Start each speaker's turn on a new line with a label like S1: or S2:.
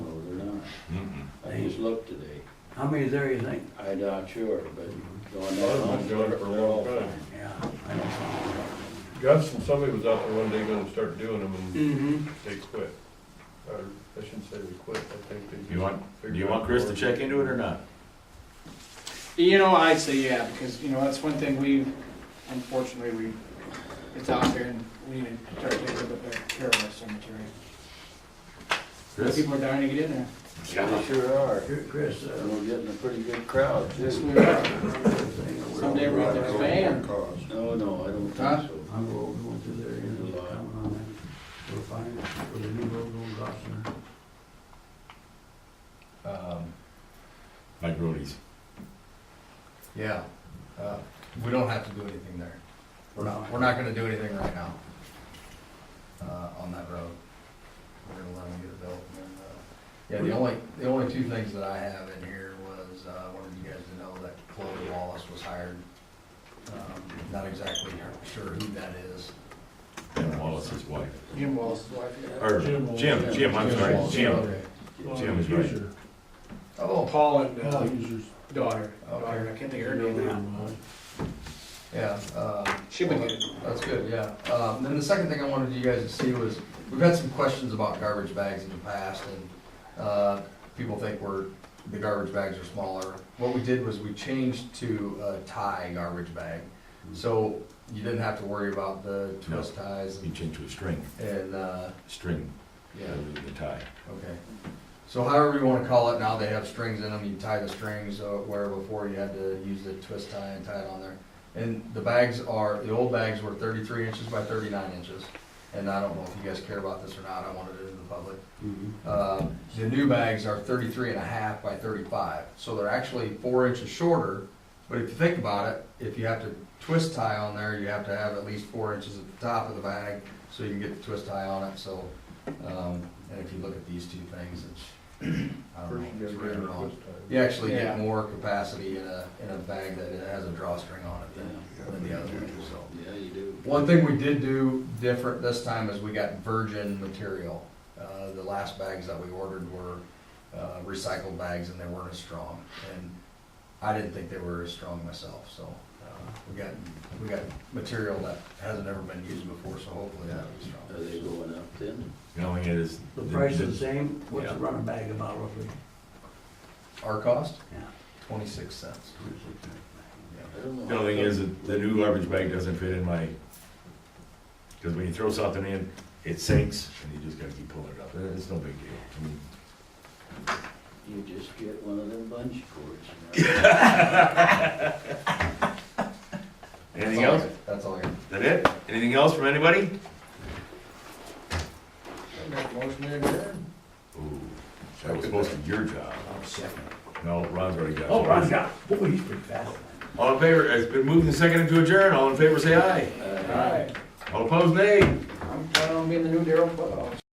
S1: just looked today.
S2: How many is there, you think?
S1: I'm not sure, but going
S3: I've
S1: down,
S3: been doing it for a long
S1: they're all
S3: time.
S2: Yeah, I don't know.
S3: Guston, somebody was out there one day gonna start doing them and
S2: Mm-hmm.
S3: they quit. Or, I shouldn't say they quit, I think they. just
S4: You want, do
S3: figured
S4: you want
S3: out
S4: Chris
S3: how
S4: to check into it or not?
S5: You know, I'd say yeah, because, you know, that's one thing we, unfortunately, we, it's out there and we need to start taking a bit better care of our cemetery.
S4: Chris?
S5: People are dying to get in there.
S1: They sure are.
S2: Chris, uh,
S1: And we're getting a pretty good crowd
S5: Yes,
S1: too.
S5: we are.
S2: thing over-
S5: Someday we're gonna have a van.
S1: No, no, I don't
S5: Huh?
S1: think so.
S2: I'm going going through there, and it's coming on that, we're fine, with the new road going across there.
S6: Um,
S4: Mike Roadies.
S6: Yeah, uh, we don't have to do anything there. We're not, we're not gonna do anything right now, uh, on that road. We're gonna let them get it built and, uh, yeah, the only, the only two things that I have in here was, uh, I wanted you guys to know that Chloe Wallace was hired. Um, Not exactly sure who that is.
S4: And Wallace's wife.
S5: Jim Wallace's wife. yeah.
S4: Or
S3: Jim Wallace.
S2: uh,
S4: Jim, Jim, I'm
S6: Jim
S4: sorry,
S6: Wallace,
S4: Jim.
S6: okay.
S3: to-
S4: Jim is right.
S6: Oh,
S5: Paul and uh, daughter,
S6: Okay.
S5: daughter, I can't think of her name now.
S6: yeah, uh,
S5: She would get it.
S6: That's good, yeah. Um, Then the second thing I wanted you guys to see was, we've had some questions about garbage bags in the past, and uh, people think we're, the garbage bags are smaller. What we did was we changed to a tie garbage bag, so you didn't have to worry about the twist ties
S4: You change to a string,
S6: and, uh,
S4: string,
S6: yeah.
S4: with the tie.
S6: Okay. So however you wanna call it, now they have strings in them, you tie the strings, uh, where before you had to use the twist tie and tie it on there. And the bags are, the old bags were thirty-three inches by thirty-nine inches, and I don't know if you guys care about this or not, I wanted it in the public.
S2: Mhm.
S6: Uh, The new bags are 33 and a half by thirty-five, so they're actually four inches shorter, but if you think about it, if you have to twist tie on there, you have to have at least four inches at the top of the bag, so you can get the twist tie on it, so, um, and if you look at these two things, it's, I
S3: First you
S6: don't know,
S3: gotta
S6: it's
S3: get
S6: right
S3: it
S6: or wrong.
S3: this time.
S6: You actually
S5: Yeah.
S6: get more capacity in a, in a bag that has a drawstring on it than, than the other one, so.
S1: Yeah, you do.
S6: One thing we did do different this time is we got virgin material. Uh, the last bags that we ordered were, uh, recycled bags and they weren't as strong. And I didn't think they were as strong myself, so, uh, we got, we got material that hasn't ever been used before, so hopefully that'll be
S1: Are they
S6: strong.
S1: going up then?
S4: The only thing is.
S2: The price is the same, what's
S4: Yeah.
S2: a running bag about roughly?
S6: Our cost,
S2: Yeah.
S6: twenty-six cents.
S1: I don't know.
S4: The only thing is, that the new garbage bag doesn't fit in my, because when you throw something in, it sinks, and you just gotta keep pulling it up, and it's no big deal. I mean,
S1: You just get one of them bunch cords. you know.
S4: Anything else?
S6: That's all I got.
S4: Is that it? Anything else from anybody?
S5: Make a motion to adjourn.
S4: Ooh, that was supposed to be your job.
S2: About second.
S4: No, Ron's already got it.
S2: Oh, Ron's got, boy, he's pretty fast.
S4: All in favor, it's been moved and seconded to adjourn, all in favor say aye.
S1: Uh,
S5: All right,
S4: All opposed, nay.
S5: I'm planning on being the new Daryl uh, Foot.